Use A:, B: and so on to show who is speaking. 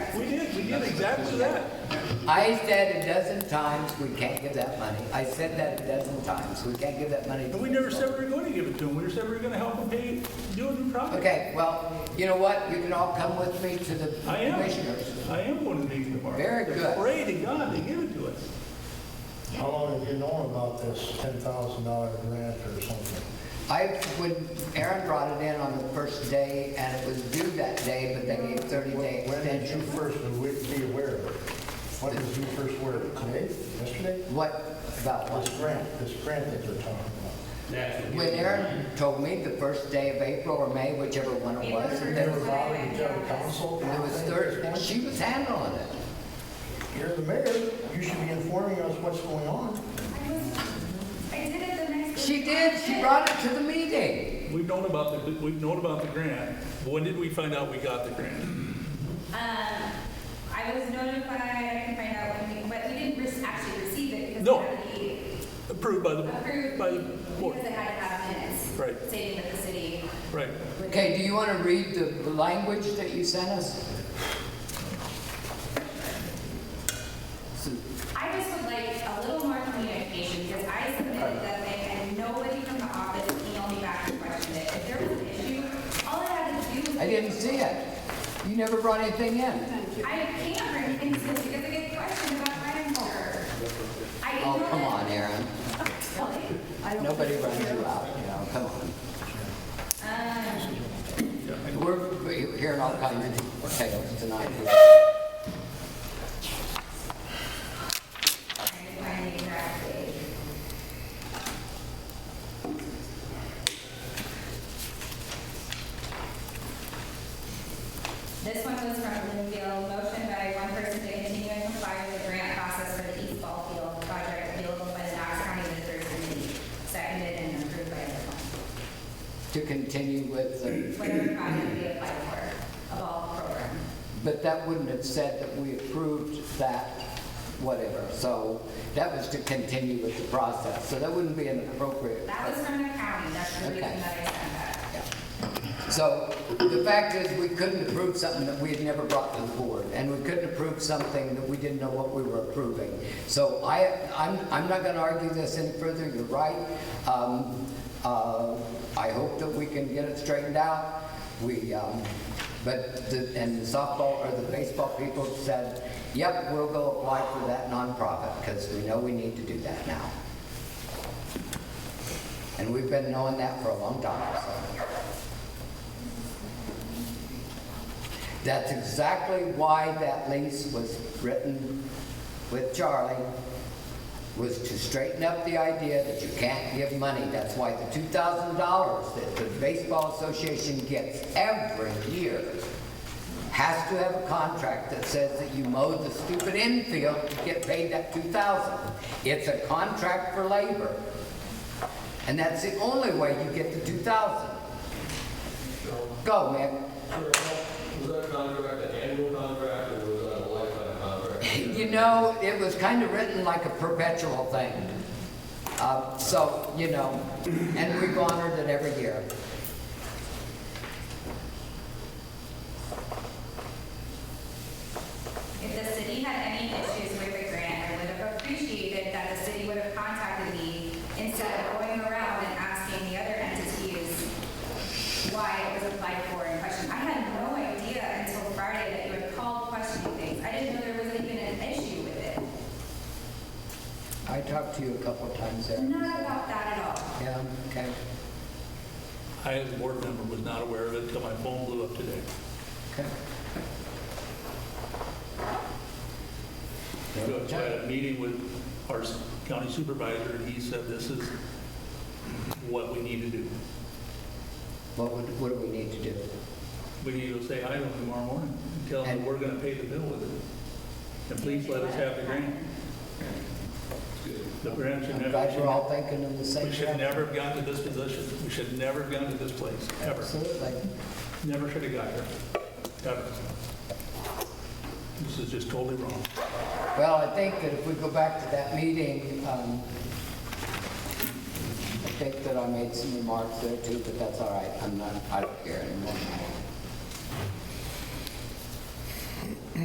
A: did exactly that.
B: I said a dozen times, we can't give that money. I said that a dozen times, we can't give that money. to
A: And we never
B: people.
A: said we were going to give it to them. We said we were going to help them pay, do a new project.
B: Okay, well, you know what? You can all come with me to the
A: I am.
B: commissioners.
A: I am going to the meeting tomorrow.
B: Very good.
A: Pray to God they give it to us.
C: How long have you known about this ten thousand dollar grant or something?
B: I, when Aaron brought it in on the first day, and it was due that day, but they gave 30-day
C: When did you
B: extension.
C: first be aware of it? When did you first aware of it? Today? Yesterday?
B: What, about
C: This
B: what?
C: grant, this grant that you're talking about.
B: When Aaron told me the first day of April or May, whichever one it was,
C: You
B: there
C: never
B: was,
C: brought it to general counsel?
B: there was third, she was handling it.
C: You're the mayor, you should be informing us what's going on.
D: I did it the next.
B: She did,
D: Um,
B: she brought it to the meeting.
A: We've known about the, we've known about the grant. When did we find out we got the grant?
D: Um, I was notified, I can find out when we, but we didn't re- actually receive it because
A: No.
D: it had to be
A: Approved by the,
D: approved.
A: by the board.
D: Because it had to have minutes.
A: Right.
D: Stating that the city.
A: Right.
D: would-
B: Okay, do you want to read the the language that you sent us? So-
D: I just would like a little more communication because I submitted that thing and nobody from the office emailed me back and questioned it. If there was an issue, all I had to do was.
B: I didn't see it. You never brought anything in.
D: I can't bring things to this because I get questions about my employer. I didn't
B: Oh,
D: know
B: come
D: that-
B: on, Aaron.
D: Really?
B: Nobody runs you out, you know, come on.
D: Um,
B: We're we're hearing all kinds of tales tonight.
D: I find it exactly. This one was from Linville, motion by one person to continue and comply with the grant process for the East Ball Field project available by the Knox County Visitors Committee, seconded and approved by the council.
B: To continue with, the-
D: Whatever project we apply for, a ball program.
B: but that wouldn't have said that we approved that, whatever. So that was to continue with the process. So that wouldn't be an appropriate.
D: That was from the county, that's the reason
B: Okay.
D: that I sent that.
B: Yeah. So the fact is, we couldn't approve something that we had never brought to the board, and we couldn't approve something that we didn't know what we were approving. So I, I'm, I'm not gonna argue this any further, you're right. Um, uh, I hope that we can get it straightened out. We, um, but, the- and the softball or the baseball people said, yep, we'll go apply for that nonprofit, because we know we need to do that now. And we've been knowing that for a long time, so. That's exactly why that lease was written with Charlie, was to straighten up the idea that you can't give money. That's why the two thousand dollars that the baseball association gets every year has to have a contract that says that you mowed the stupid infield to get paid that two thousand. It's a contract for labor. And that's the only way you get the two thousand. Go, man.
E: Was that contract an annual contract or was that a lifetime contract?
B: You know, it was kind of written like a perpetual thing. Uh, So, you know, and we've honored it every year.
D: If the city had any issues with the grant, I would have appreciated that the city would have contacted me instead of going around and asking the other entities why it was applied for and questioned. I had no idea until Friday that you had called questioning things. I didn't know there was even an issue with it.
B: I talked to you a couple of times there.
D: Not about that at all.
B: Yeah, okay.
A: I, as a board member, was not aware of it until my phone blew up today.
B: okay.
A: So I had a meeting with our county supervisor, and he said, this is what we need to do.
B: What would, what do we need to do?
A: We need to say hi to him tomorrow morning and tell him
B: And-
A: that we're going to pay the bill with it. And please let us have the grant. The grant should
B: I'm
A: never,
B: glad we're all thinking of the same
A: we should
B: thing.
A: never have gotten to this position. We should never have gotten to this place, ever.
B: Absolutely.
A: Never should have got here, ever. This is just totally wrong.
B: Well, I think that if we go back to that meeting, um, I think that I made some remarks there too, but that's all right. I'm not, I don't care anymore.